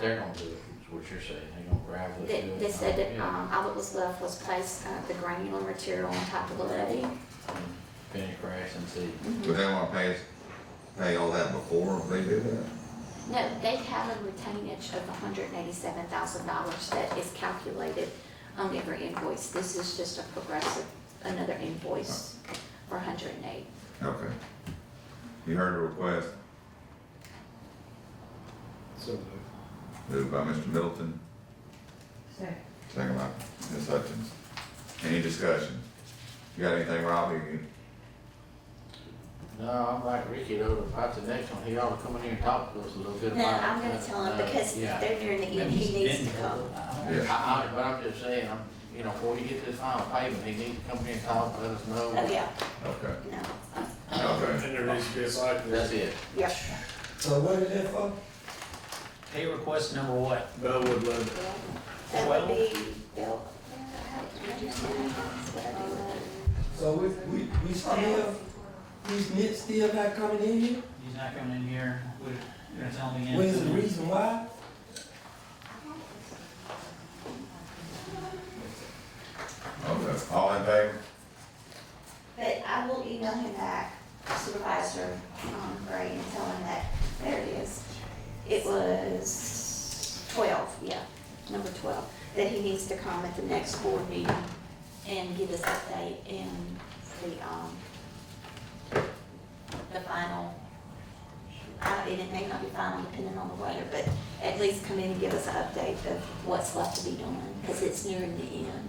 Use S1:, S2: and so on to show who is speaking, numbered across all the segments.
S1: They're gonna do it, is what you're saying, they're gonna gravel it.
S2: They,
S1: do it,
S2: they said that,
S1: yeah.
S2: um, all that was left was place, uh, the granular material on top of the levee.
S1: And Finish grass and seed.
S3: Do they wanna pay, us- pay all that before they do that?
S2: No, they have a retainage of hundred and eighty-seven thousand dollars that is calculated on every invoice. This is just a progressive, another invoice for hundred and eight.
S3: Okay. You heard the request,
S4: So moved.
S3: moved by Mr. Middleton,
S5: Second.
S3: second by Ms. Hutchins. Any discussion? You got anything, Robbie? You-
S1: No, I'm like Ricky though, about the next one, he ought to come in here and talk to us a little bit
S2: No,
S1: about it.
S2: I'm gonna
S1: but,
S2: tell him
S1: uh,
S2: because
S1: yeah.
S2: they're nearing the end, he needs to come.
S3: Yeah,
S1: I, I, but I'm just saying, I'm, you know, before you get this final payment, he needs to come in and talk, let us
S2: Oh,
S1: know.
S2: yeah,
S3: okay,
S2: no,
S3: okay.
S4: And there needs to be a site
S1: That's
S4: visit.
S1: it.
S2: yeah.
S6: So what is it for?
S7: Pay request number what?
S4: Bellwood Levy.
S2: That would
S7: Well-
S2: be built. What I do with
S6: So we, we, we still, these nits still not coming in here?
S7: He's not coming in here, we're gonna tell him again.
S6: What is the reason why?
S3: Okay, all in favor?
S2: But I will email him back, Supervisor um, Gray, and tell him that, there it is. It was twelve, yeah, number twelve, that he needs to come at the next board meeting and give us update and the, um, the final, I- and it may not be final depending on the weather, but at least come in and give us an update of what's left to be done, because it's nearing the end.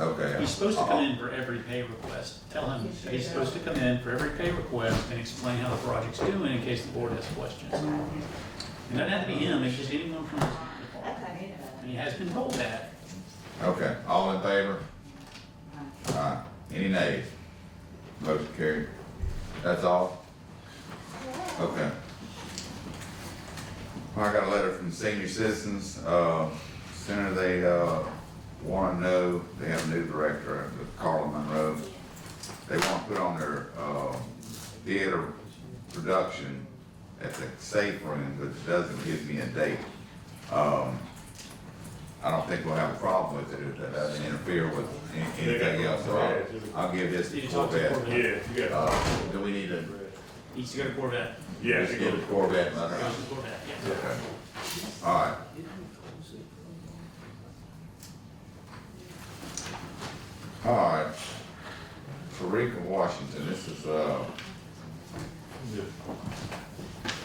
S3: Okay.
S7: He's supposed to come in for every pay request. Tell him that he's supposed to come in for every pay request and explain how the project's doing in case the board has questions. It doesn't have to be him, it's just anyone from his department.
S2: Okay.
S7: And he has been told that.
S3: Okay, all in favor? Aye. Any nays? Motion carried. That's all? Okay. Well, I got a letter from senior citizens, uh, center, they, uh, wanna know, they have a new director, uh, Carla Monroe. They want to put on their, uh, theater production at the safe room, but it doesn't give me a date. Um, I don't think we'll have a problem with it, if that doesn't interfere with any- anything else, so I'll, I'll give this
S7: Did
S3: to
S7: you talk to
S3: Corvette.
S7: Corvette?
S4: yeah.
S3: Uh, do we need to
S7: He's to go to Corvette.
S3: just give the Corvette letter?
S7: Goes to Corvette, yeah.
S3: Okay. All right. All right. Tariq of Washington, this is, uh,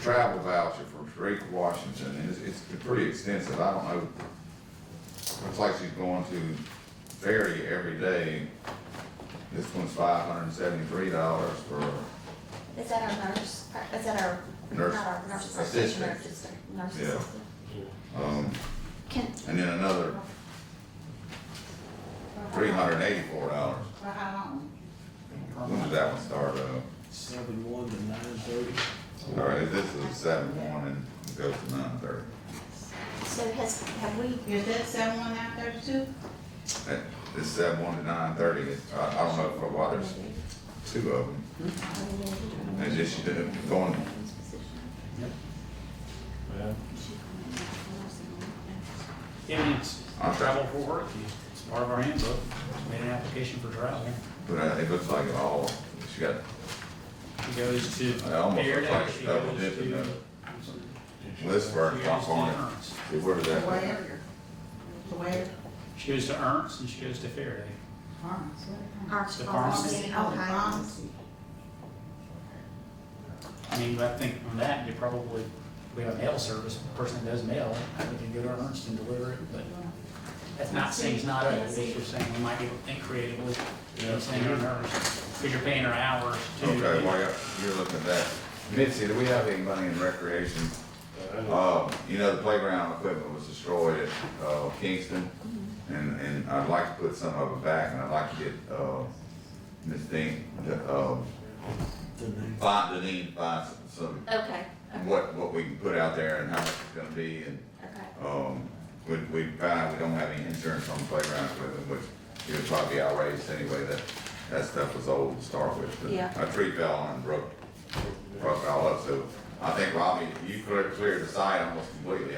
S3: travel voucher for Tariq of Washington, and it's, it's pretty extensive, I don't know. Looks like she's going to ferry every day. This one's five hundred and seventy-three dollars for
S2: Is that our nurse, is that our,
S3: Nurse
S2: not our nurse
S3: assistant.
S2: assistant, nurse assistant, nurse
S3: Yeah.
S2: assistant?
S3: Um,
S2: Can,
S3: and then another three hundred and eighty-four dollars.
S5: For how long?
S3: When did that one start up?
S4: Seven one to nine thirty.
S3: All right, this is seven one and goes to nine thirty.
S2: so has, have we,
S5: Is that seven one nine thirty-two?
S3: That, this seven one to nine thirty, I, I don't know for why there's two of them. It's just you do- going,
S7: Yeah, I mean, it's
S3: I'll try.
S7: travel for work, it's part of our handbook. Made an application for travel.
S3: but uh, it looks like it all, she got,
S7: She goes to
S3: I almost look like
S7: Airdown,
S3: it's
S7: she
S3: double
S7: goes
S3: dipping,
S7: to.
S3: List for
S7: she
S3: it,
S7: goes
S3: off
S7: to
S3: on it.
S7: Ernst.
S3: see, where did
S5: To
S3: that?
S5: where? To where?
S7: She goes to Ernst and she goes to Faraday.
S5: Harms. Oh,
S7: The pharmacy.
S2: Oh,
S7: I mean, I think from that, you probably, we have mail service, the person that does mail, I think you go to Ernst and deliver it, but that's not saying it's not, open. it's just saying we might be able to think creatively, you know, saying on Ernst, because you're paying her hours too.
S3: Okay, while you're, you're looking at that, Mitzi, do we have any money in recreation? Uh, you know, the playground equipment was destroyed at, uh, Kingston, and, and I'd like to put some of it back, and I'd like to get, uh, Ms. Dean, the, uh, find, Deneen, to find some,
S2: okay,
S3: some- what, what we can put out there and how much it's gonna be, and,
S2: okay,
S3: um, we, we found we don't have any insurance on the playground equipment, which it would probably be outrageous anyway, that, that stuff was old to start with. but
S2: Yeah.
S3: A tree fell on and broke, broke it all up, so I think Robbie, you cleared, cleared the site almost completely